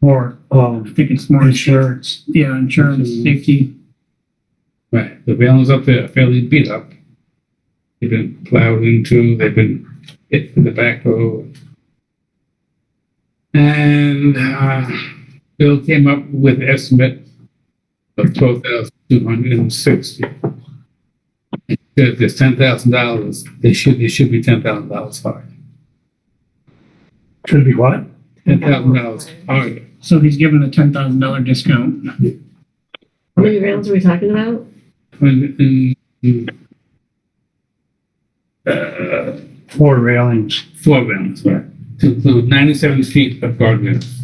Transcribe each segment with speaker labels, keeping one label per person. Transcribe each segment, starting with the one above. Speaker 1: more
Speaker 2: Oh,
Speaker 1: I think it's more
Speaker 2: insurance.
Speaker 1: yeah, insurance,
Speaker 2: Mhm.
Speaker 1: safety.
Speaker 3: Right, the railings up there are fairly beat up. They've been plowed into, they've been hit with the backhoe. And, uh, Bill came up with an estimate of twelve thousand two hundred and sixty. If there's ten thousand dollars, they should, it should be ten thousand dollars fine.
Speaker 2: Should be what?
Speaker 3: Ten thousand dollars fine.
Speaker 1: So he's given a ten thousand dollar discount.
Speaker 4: How many rounds are we talking about?
Speaker 3: When, um, uh,
Speaker 2: Four railings.
Speaker 3: four rounds, right? To include ninety-seven feet of guardrails.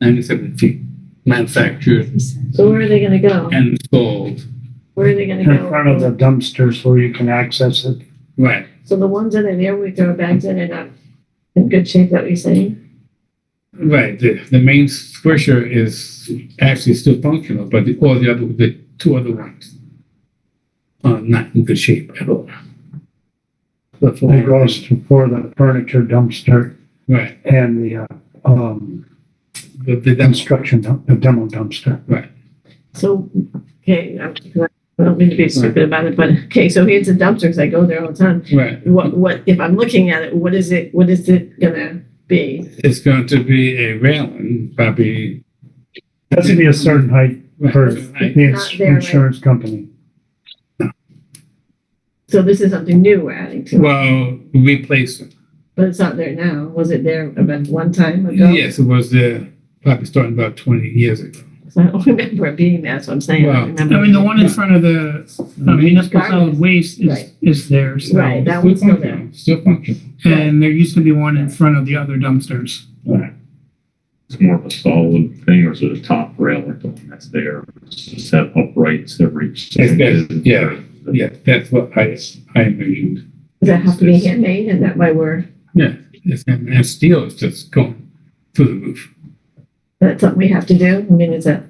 Speaker 3: Ninety-seven feet manufactured
Speaker 4: So where are they gonna go?
Speaker 3: and installed.
Speaker 4: Where are they gonna
Speaker 2: In front of the
Speaker 4: go?
Speaker 2: dumpsters where you can access it.
Speaker 3: Right.
Speaker 4: So the ones that are there, we throw bags in and up in good shape, that we say?
Speaker 3: Right, the, the main squisher is actually still functional, but the, all the other, the two other ones are not in good shape at all. The four
Speaker 2: It goes to- for the furniture dumpster
Speaker 3: Right,
Speaker 2: and the, uh, um,
Speaker 3: the, the dumpster,
Speaker 2: construction, dump- the demo dumpster.
Speaker 4: So, okay, I'm- I don't mean to be stupid about it, but, okay, so here's the dumpster, because I go there all the time.
Speaker 3: right.
Speaker 4: What, what, if I'm looking at it, what is it, what is it gonna be?
Speaker 3: It's going to be a railing, probably.
Speaker 2: It Has to be a certain height for
Speaker 3: Right.
Speaker 2: the ins-
Speaker 4: there, right?
Speaker 2: insurance company.
Speaker 4: So this is something new we're adding to it,
Speaker 3: Well, replace it.
Speaker 4: but it's not there now. Was it there about one time ago?
Speaker 3: Yes, it was there, probably starting about twenty years ago.
Speaker 4: 'Cause I don't remember it being there, so I'm saying, I
Speaker 3: Well,
Speaker 4: don't remember.
Speaker 1: I mean, the one in front of the uh, municipal solid waste is,
Speaker 4: Right.
Speaker 1: is there, so.
Speaker 4: Right, that
Speaker 3: Still
Speaker 4: one's still
Speaker 3: functional,
Speaker 4: there.
Speaker 3: Still functional.
Speaker 1: And there used to be one in front of the other dumpsters.
Speaker 5: It's more of a solid thing, or is it a top rail like the one that's there? Set uprights every.
Speaker 3: Yes, yes, yeah. Yeah, that's what I, I envisioned.
Speaker 4: Does that have to be handmade and that why we're,
Speaker 3: Yeah, it's- and and steel is just going through the roof.
Speaker 4: that's something we have to do? I mean, is that,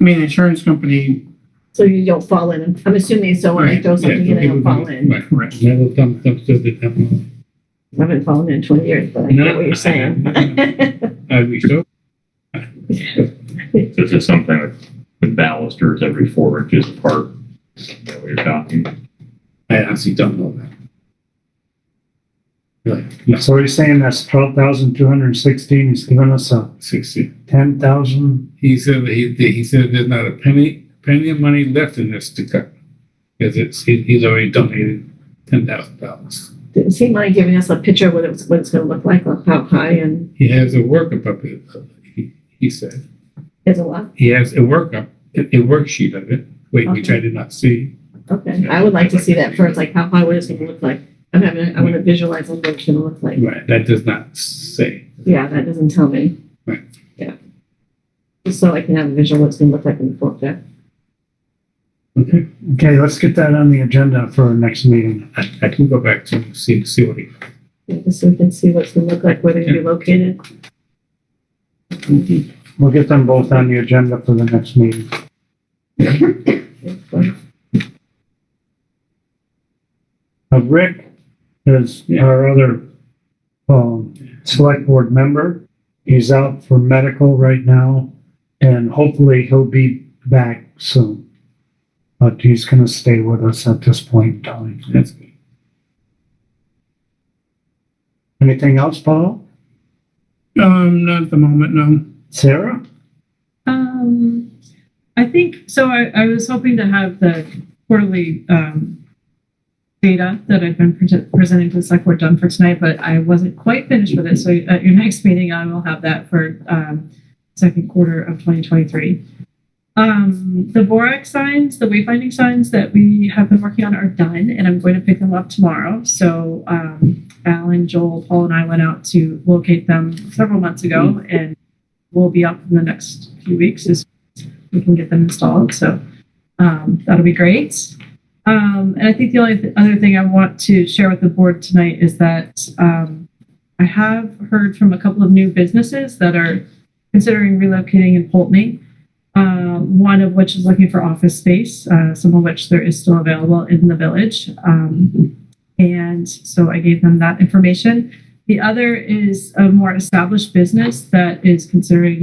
Speaker 1: I mean, the insurance company,
Speaker 4: so you don't fall in? I'm assuming so when I
Speaker 3: Right,
Speaker 4: throw
Speaker 3: yeah,
Speaker 4: something in, I
Speaker 3: people
Speaker 4: don't fall
Speaker 3: don't-
Speaker 4: in. I
Speaker 3: Right, right. Metal dump- dumpsters that have a-
Speaker 4: haven't fallen in twenty years, but I
Speaker 3: No,
Speaker 4: get what
Speaker 3: I-
Speaker 4: you're saying.
Speaker 3: I reached out,
Speaker 5: This is something with- with balusters every four inches apart. Is that what you're talking?
Speaker 3: I honestly don't know that. Like, no,
Speaker 2: So he's saying that's twelve thousand two hundred and sixteen, he's giving us a
Speaker 3: sixty.
Speaker 2: ten thousand,
Speaker 3: He said that he, he said there's not a penny, penny of money left in this to cut. Because it's, he- he's already donated ten thousand dollars.
Speaker 4: Didn't seem like giving us a picture of what it was, what it's gonna look like, like how high and
Speaker 3: He has a workup up there, he, he said.
Speaker 4: there's a lot.
Speaker 3: He has a workup, a a worksheet of it, wait, which I did not see.
Speaker 4: Okay, I would like to see that first, like how high, what it's gonna look like. I'm having, I wanna visualize what it's gonna look like.
Speaker 3: Right, that does not say.
Speaker 4: Yeah, that doesn't tell me.
Speaker 3: Right.
Speaker 4: Yeah. Just so I can have a visual what it's gonna look like in the future.
Speaker 3: Okay.
Speaker 2: okay, let's get that on the agenda for our next meeting.
Speaker 3: I, I can go back to see, see what he,
Speaker 4: Yeah, So we can see what it's gonna look like, where they're gonna be located.
Speaker 3: Mm-hmm.
Speaker 2: We'll get them both on the agenda for the next meeting. Uh, Rick is
Speaker 3: Yeah.
Speaker 2: our other, um, select board member. He's out for medical right now and hopefully he'll be back soon. But he's gonna stay with us at this point in time.
Speaker 3: that's good.
Speaker 2: Anything else, Paul?
Speaker 1: um, not at the moment, no.
Speaker 2: Sarah?
Speaker 6: Um, I think, so I, I was hoping to have the quarterly, um, data that I've been pre- presenting to the select board done for tonight, but I wasn't quite finished with it. So at your next meeting, I will have that for, um, second quarter of 2023. Um, the Borax signs, the wayfinding signs that we have been working on are done and I'm going to pick them up tomorrow. So, um, Alan, Joel, Paul and I went out to locate them several months ago and will be up in the next few weeks as we can get them installed. So um, that'll be great. Um, and I think the only th- other thing I want to share with the board tonight is that um, I have heard from a couple of new businesses that are considering relocating in Pulteney. Uh, one of which is looking for office space, uh, some of which there is still available in the village. Um, and so I gave them that information. The other is a more established business that is considering